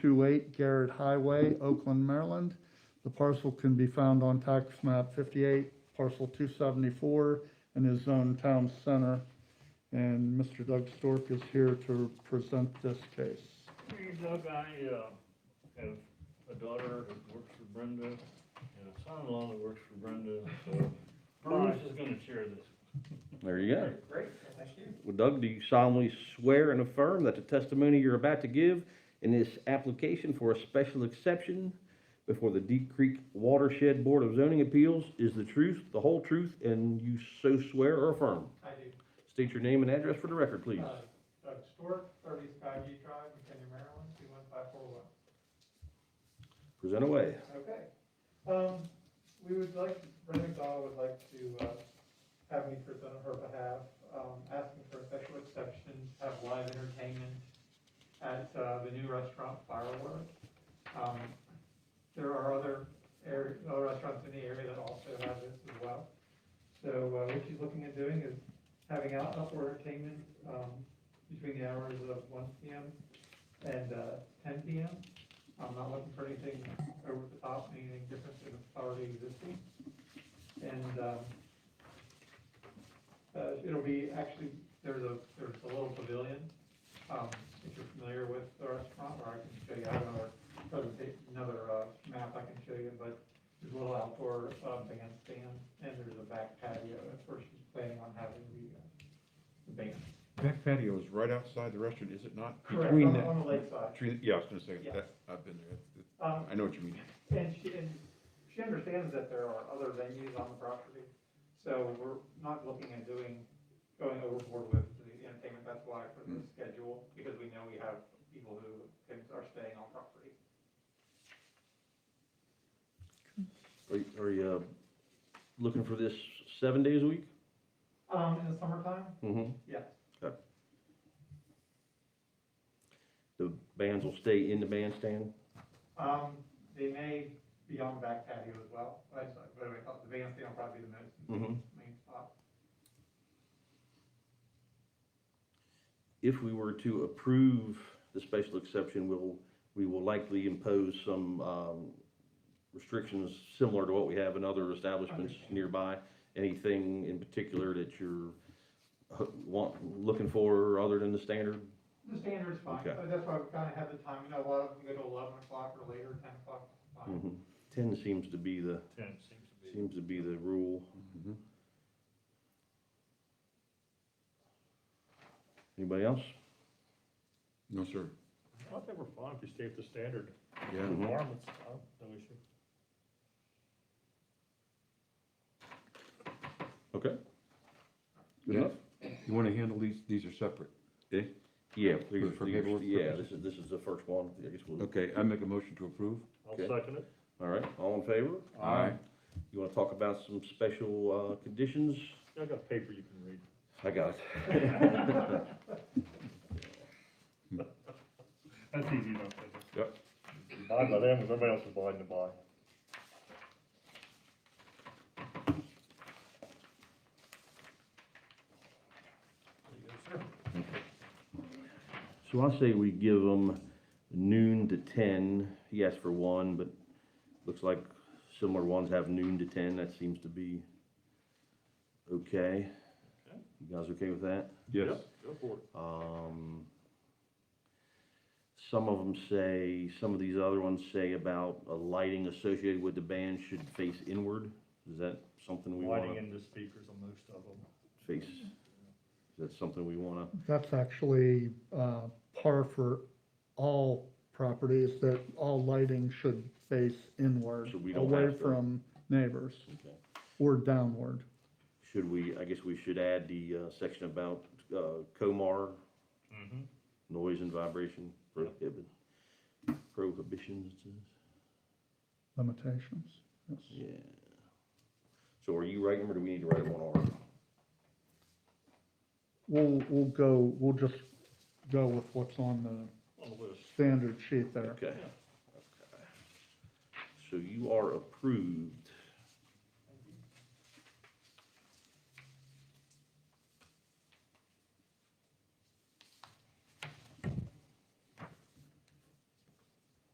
28 Garrett Highway, Oakland, Maryland. The parcel can be found on tax map 58, parcel 274, and is zoned town center. And Mr. Doug Stork is here to present this case. Hey, Doug, I, uh, have a daughter that works for Brenda and a son-in-law that works for Brenda, so Bruce is gonna share this. There you go. Great, thank you. Well, Doug, do you solemnly swear and affirm that the testimony you're about to give in this application for a special exception before the Deep Creek Watershed Board of Zoning Appeals is the truth, the whole truth, and you so swear or affirm? I do. State your name and address for the record, please. Uh, Doug Stewart, thirty Skyview Drive, McKinney, Maryland, two one five four one. Present away. Okay. Um, we would like, Brenda Dahl would like to, uh, have me present on her behalf, um, asking for a special exception to have live entertainment at, uh, the new restaurant Firework. Um, there are other area, other restaurants in the area that also have this as well. So, uh, what she's looking at doing is having out outdoor entertainment, um, between the hours of one P M. and, uh, ten P M. I'm not looking for anything over the top, anything different than what's already existing. And, um, uh, it'll be, actually, there's a, there's a little pavilion, um, if you're familiar with the restaurant, or I can show you, I have another presentation, another, uh, map I can show you, but there's a little outdoor, uh, bandstand, and there's a back patio, that's where she's planning on having the, uh, the band. That patio is right outside the restaurant, is it not? Correct, on, Between that- on the lakeside. Between, yeah, I was gonna say, Yeah. that, I've been there, It's- it's- Um, I know what you mean. And she, and she understands that there are other venues on the property, so we're not looking at doing, going overboard with the entertainment, that's why for the schedule, because we know we have people who can- are staying on property. Are you, are you, uh, looking for this seven days a week? Um, in the summertime, Mm-hmm. yes, The bands will stay in the bandstand? um, they may be on the back patio as well, that's, but I thought the bandstand will probably be the most Mm-hmm. main spot. if we were to approve the special exception, we'll, we will likely impose some, um, restrictions similar to what we have in other establishments Understand. nearby. Anything in particular that you're ho- want, looking for other than the standard? The standard's fine, Okay. but that's why we kinda have the time, you know, a lot of them go to eleven o'clock or later, ten o'clock, fine. Mhm. Ten seems to be the, Ten seems to be. seems to be the rule. Mm-hmm. Anybody else? No, sir. Mm-hmm. I think we're fine if you stay at the standard Yeah, Mhm. requirements, I don't- no issue. Okay. Good Yeah. enough? you wanna handle these, these are separate. Yeah, please, For paperwork yeah, this purposes? is, this is the first one, I guess we'll. Okay, I make a motion to approve? I'll Okay. second it. All right, all in favor? Aye. You wanna talk about some special, uh, conditions? I got paper you can read. I got it. That's easy enough. isn't it? Yep. Buy by them, 'cause everybody else is blind to buy. So I say we give them noon to ten, he asked for one, but looks like similar ones have noon to ten, that seems to be okay. Okay. You guys okay with that? Yes. Yep, Go for it. Um, some of them say, some of these other ones say about a lighting associated with the band should face inward. Is that something we Lighting wanna in the speakers on most of them. face? Is that something we wanna, That's actually uh, par for all properties, that all lighting should face inward, So we don't away have to- from neighbors, or downward. should we, I guess we should add the, uh, section about, uh, Comar, Mm-hmm. noise and vibration prohibit, prohibitions, limitations. Yes. yeah. So are you writing, them, or do we need to write them on our? We'll, we'll go, we'll just go with what's on the On the list. standard sheet there. Okay. Okay. So you are approved